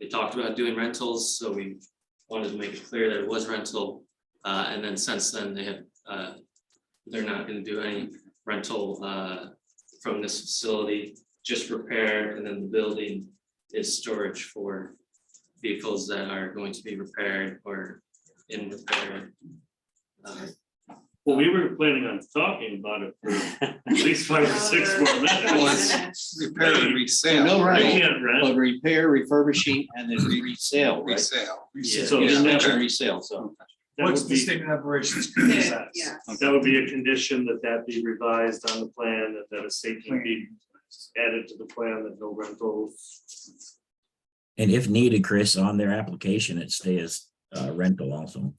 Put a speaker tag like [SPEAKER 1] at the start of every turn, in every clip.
[SPEAKER 1] They talked about doing rentals, so we wanted to make it clear that it was rental. Uh, and then since then, they have, uh, they're not gonna do any rental, uh, from this facility, just repair, and then the building is storage for vehicles that are going to be repaired or in repair. Uh,
[SPEAKER 2] Well, we were planning on talking about it for at least five or six more minutes.
[SPEAKER 3] Repair and resale.
[SPEAKER 4] No,
[SPEAKER 2] They
[SPEAKER 4] right.
[SPEAKER 2] can't rent,
[SPEAKER 4] But repair, refurbishing, and then resale, right?
[SPEAKER 3] Resale.
[SPEAKER 1] Yeah.
[SPEAKER 2] So
[SPEAKER 4] Yeah,
[SPEAKER 2] there's no-
[SPEAKER 4] mention resale, so.
[SPEAKER 2] that
[SPEAKER 5] What's
[SPEAKER 2] would
[SPEAKER 5] the
[SPEAKER 2] be,
[SPEAKER 5] statement of operations?
[SPEAKER 6] Yeah, yeah.
[SPEAKER 2] that would be a condition that that be revised on the plan, and that a statement be added to the plan that no rentals.
[SPEAKER 7] And if needed, Chris, on their application, it stays uh, rental also,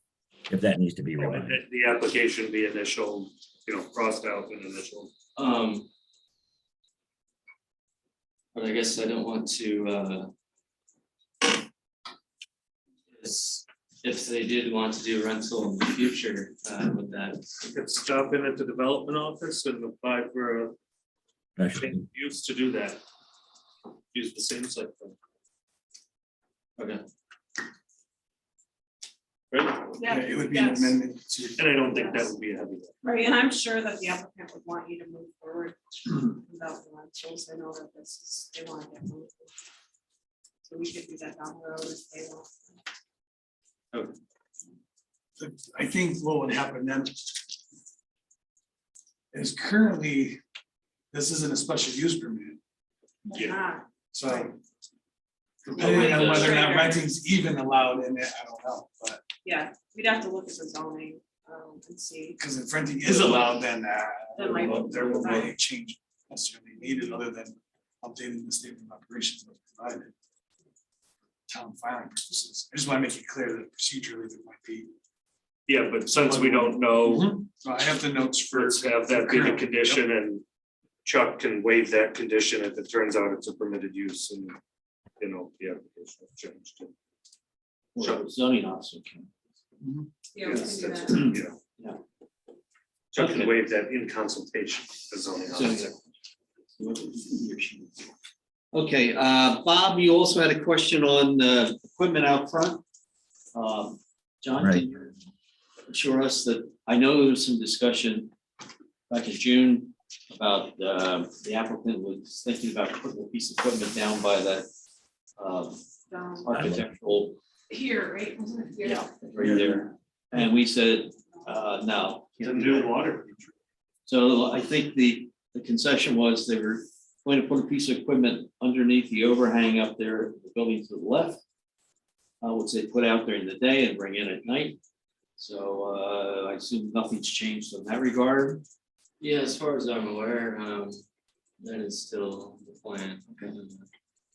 [SPEAKER 7] if that needs to be
[SPEAKER 2] or
[SPEAKER 7] revised.
[SPEAKER 2] that The application be initial, you know, crossed out and initial.
[SPEAKER 1] Um. But I guess I don't want to, uh. is- if they did want to do rental in the future, uh, with that,
[SPEAKER 2] You could stop in at the development office and apply for a
[SPEAKER 7] Especially-
[SPEAKER 2] change use to do that. Use the same site. plan.
[SPEAKER 1] okay,
[SPEAKER 2] Right?
[SPEAKER 6] Yeah,
[SPEAKER 5] It would be an
[SPEAKER 6] that's-
[SPEAKER 5] amendment to.
[SPEAKER 2] And I don't think that would be a heavy. lift.
[SPEAKER 6] Right, and I'm sure that the applicant would want you to move forward without the rentals, I know that this is, they want to get moved. So we could do that down the road if they want.
[SPEAKER 5] I think what would happen then is currently, this isn't a special use permit,
[SPEAKER 2] Yeah.
[SPEAKER 6] Ah,
[SPEAKER 5] so depending on whether or not renting's even allowed in it, I don't know, but
[SPEAKER 6] Yeah, we'd have to look at the zoning, um, and see,
[SPEAKER 5] because if renting is allowed, then uh,
[SPEAKER 6] Then might-
[SPEAKER 5] there will be a change necessarily needed other than updating the statement of operations that's provided. Town filing purposes. I just want to make it clear that procedurally there might be.
[SPEAKER 2] Yeah, but since we don't know,
[SPEAKER 5] So I have the notes for.
[SPEAKER 2] let's have that be the condition and Chuck can waive that condition if it turns out it's a permitted use and, you know, the application has changed.
[SPEAKER 4] Well, Zoning officer can.
[SPEAKER 6] yeah, we can
[SPEAKER 2] Yes,
[SPEAKER 6] do
[SPEAKER 2] that's-
[SPEAKER 6] that.
[SPEAKER 2] yeah. Chuck can waive that in consultation, with the zoning officer.
[SPEAKER 4] Okay, uh, Bob, you also had a question on, uh, equipment out front. Um, John,
[SPEAKER 7] Right.
[SPEAKER 4] can you assure us that, I know there was some discussion back in June about, uh, the applicant was thinking about putting a piece of equipment down by that, um,
[SPEAKER 6] Um,
[SPEAKER 4] architectural
[SPEAKER 6] Here, right, wasn't it here?
[SPEAKER 4] Yeah, right there. And we said, uh, no.
[SPEAKER 2] The new water.
[SPEAKER 4] So I think the, the concession was they were going to put a piece of equipment underneath the overhang up there, the building to the left. Uh, which they put out during the day and bring in at night. So, uh, I assume nothing's changed in that regard.
[SPEAKER 1] yeah, as far as I'm aware, um, that is still the plan.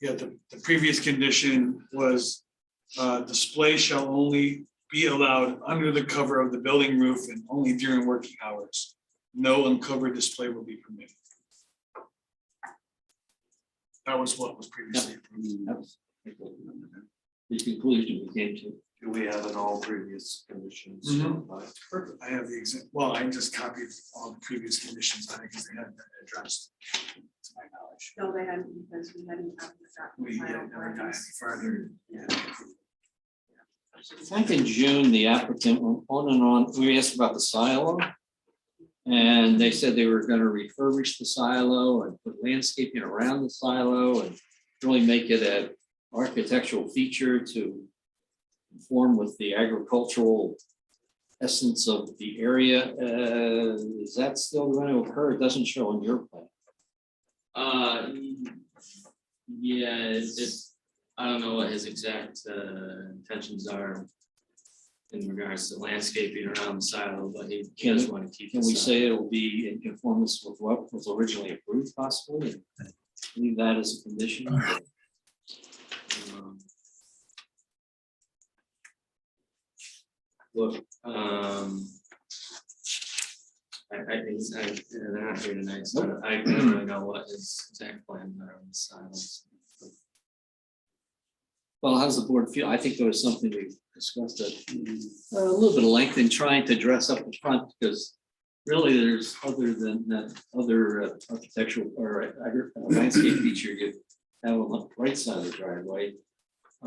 [SPEAKER 5] Yeah, the, the previous condition was, uh, display shall only be allowed under the cover of the building roof and only during working hours. No uncovered display will be permitted. That was what was previously approved.
[SPEAKER 4] That was The conclusion we came to.
[SPEAKER 2] Do we have in all previous conditions?
[SPEAKER 1] Mm-hmm.
[SPEAKER 5] Mhm. I have the exam, well, I just copied all the previous conditions, I think, because they hadn't been addressed. To my knowledge,
[SPEAKER 6] No, they hadn't, because we hadn't gotten
[SPEAKER 5] we
[SPEAKER 6] the
[SPEAKER 5] had
[SPEAKER 6] final
[SPEAKER 5] never got any
[SPEAKER 6] plans.
[SPEAKER 5] further.
[SPEAKER 4] Back in June, the applicant went on and on, we asked about the silo. And they said they were gonna refurbish the silo and put landscaping around the silo and really make it an architectural feature to conform with the agricultural essence of the area. Uh, is that still gonna occur? It doesn't show on your plan.
[SPEAKER 1] Uh, yeah, it's, it's- I don't know what his exact, uh, intentions are in regards to landscaping around the silo, but he
[SPEAKER 4] Can-
[SPEAKER 1] does wanna keep.
[SPEAKER 4] Can
[SPEAKER 1] the
[SPEAKER 4] we
[SPEAKER 1] silo.
[SPEAKER 4] say it will be in conformance with what was originally approved possibly? and Leave that as a condition?
[SPEAKER 1] Um, Look, um. I, I think, I, yeah, they're not here tonight, so I don't really know what his exact plan are on the silence.
[SPEAKER 4] Well, how's the board feel? I think there was something we discussed that uh, a little bit of length in trying to dress up the front because really there's other than that other uh, architectural or agri- uh, landscape feature you have on the right side of the driveway.